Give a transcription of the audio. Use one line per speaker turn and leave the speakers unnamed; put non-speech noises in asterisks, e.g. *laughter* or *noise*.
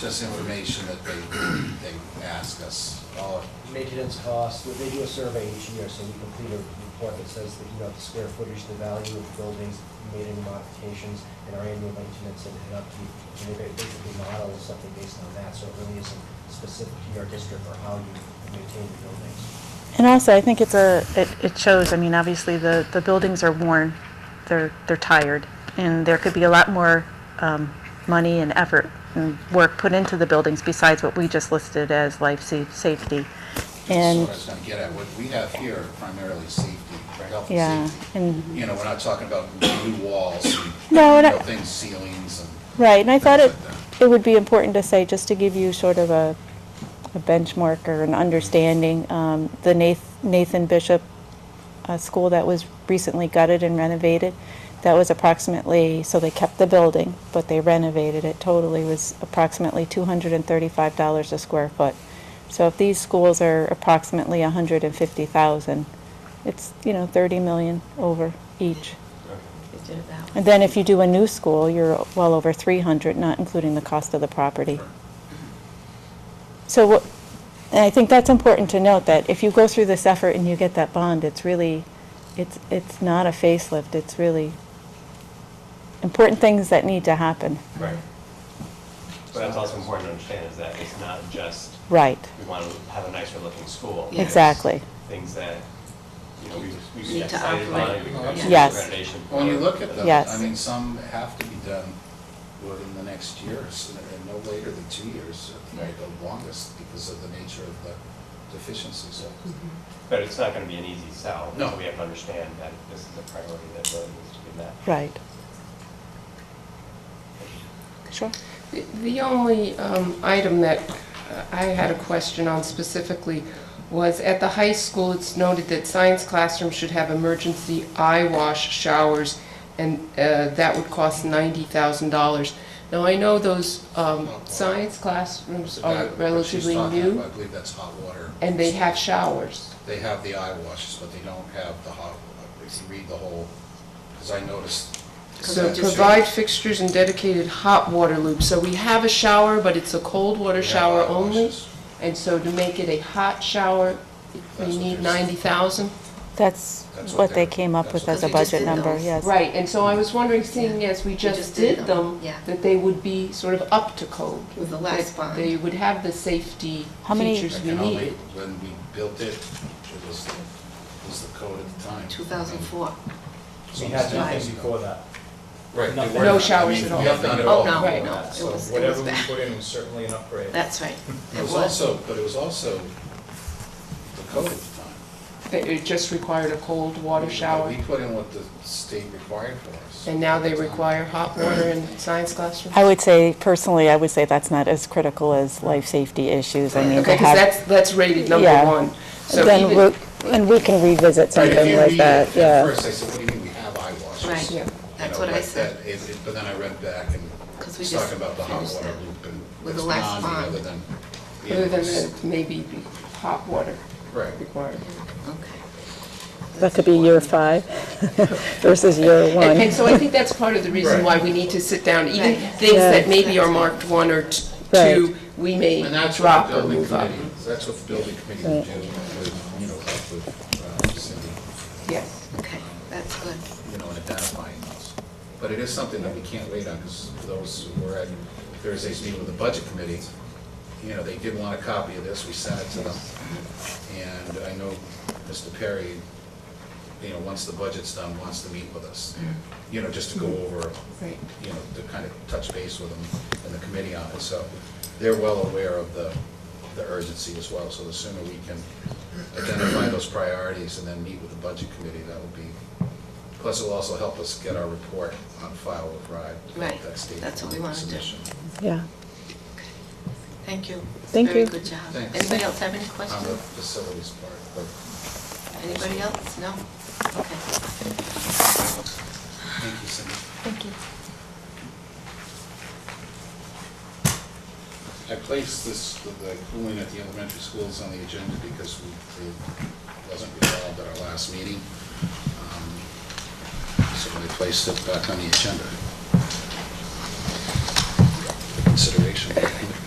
just information that
*clears throat*
they, they ask us. Oh,
uh, maintenance costs, they- they do a survey each year, so we complete a report that says that, you know, the square footage, the value of buildings, made any modifications, and our annual maintenance and and upkeep. And they ba- basically model something based on that, so it really isn't specific to your district or how you maintain the buildings.
And also, I think it's a, it, it shows, I mean, obviously, the, the buildings are worn, they're, they're tired, and there could be a lot more, um, money and effort and work put into the buildings besides what we just listed as life sa- safety.
That's
And,
what I was gonna get at, what we have here are primarily safety, health
yeah,
and safety.
and
You know, we're not talking about new walls and, you
No, and I-
know, things, ceilings and.
Right, and I thought it,
things like
it would be important to say, just to give you sort of a, a benchmark or an understanding, um, the Nath- Nathan Bishop, uh, school that was recently gutted and renovated, that was approximately, so they kept the building, but they renovated it totally, was approximately two hundred and thirty-five dollars a square foot. So if these schools are approximately a hundred and fifty thousand, it's, you know, thirty million over each. And then if you do a new school, you're well over 300, not including the cost of the property. So, what- and I think that's important to note, that if you go through this effort and you get that bond, it's really, it's, it's not a facelift, it's really important things that need to happen.
Right. But that's also important to understand is that it's not just,
Right,
we want to have a nicer looking school.
Yeah.
exactly.
Things that, you know, we, we
Need
get
to
excited
operate.
about, we can actually
Yes.
renovation.
that. When you look at those,
Yes.
I mean, some have to be done within the next year, so that- and no later than two years, or the longest, because of the nature of the deficiencies.
Mm-hmm.
But it's not going to be an easy sell.
No.
So we have to understand that this is a priority that really needs to be met.
Right. Sure.
The- The only um, item that uh, I had a question on specifically was at the high school, it's noted that science classrooms should have emergency eye wash showers, and uh, that would cost $90,000. Now, I know those um, science classrooms are
That- what she's
relatively
talking about, I
new,
believe that's hot water.
and they have showers.
They have the eye washes, but they don't have the hot, if you read the whole, because I noticed.
So
that-
provide fixtures and dedicated hot water loops. So we have a shower, but it's a cold
They
water
have
shower
eye
only?
washes.
And so to make it a hot shower,
That's
we
what
need
they're saying.
ninety thousand?
That's
That's what
what they
they're-
came up with
that's
as
what
a
they just
budget
did
number,
those.
yes.
Right, and so I was wondering, seeing as we just did them,
yeah.
that they would be sort of up to code.
With the last
that
bond.
They would have the safety
How many-
features
I
we
can only-
needed.
When we built it, it was, the- it was the code at the time.
2004.
Oh, We had nothing
Right.
before that.
Right. they
Nothing.
were-
No
I mean,
showers at all.
We have done it
Oh,
all.
no,
Right.
no, it
So
was, it was
whatever we
bad.
put in was certainly an upgrade. *laughs*
That's right.
It was also, but it was also the code at the time.
That it just required a cold water
We-
shower,
We put in what the state required for us.
and now they require hot water in science classrooms?
I would say, personally, I would say that's not as critical as life safety issues. I mean, to
Okay, because
have
that's, that's rated number
Yeah.
one. So
Then,
even-
we'll- and we can revisit
Right, if
something
you
like
read it
that,
At
yeah.
first, I said, what do you mean we have eye washes?
Right.
Yeah.
You
That's
know,
what I
like
said.
that is- it- But then I read back and
'Cause we
it's
just
talking about the hot
finished
water
that
loop and
with
it's
the last
bonding
bond.
other than. the
Other than
others.
that, maybe be hot water
Right.
required.
Okay.
That could be year five *laughs* versus year
And
one.
and so I think that's part of the reason why we need to sit down, even
Right.
things
Yeah.
that maybe are marked one or t- two, we may
And that's what
drop
the
or
building
move up.
committee, that's what the building committee would do, with, you know, help with uh, Cindy,
Yes.
Okay, that's good.
you know, in identifying those. But it is something that we can't wait on, because those who were at Thursday's meeting with the budget committee, you know, they did want a copy of this, we sent it to them. And I know Mr. Perry, you know, once the budget's done, wants to meet with us, you know, just to go over,
Right.
you know, to kind of touch base with them and the committee on it. So they're well aware of the, the urgency as well. So the sooner we can identify those priorities and then meet with the budget committee, that will be, plus it'll also help us get our report on file with RIDE.
Right. That's what we wanna do.
Yeah.
Thank you.
Thank
Very
you.
good job.
Thanks.
Anybody else have any
On the
questions?
facilities part, but
Anybody else? No? Okay.
thank you, Cindy.
Thank you.
I placed this, the cooling at the elementary schools on the agenda because we, it wasn't resolved at our last meeting. Um, So I placed it back on the agenda. For Consideration.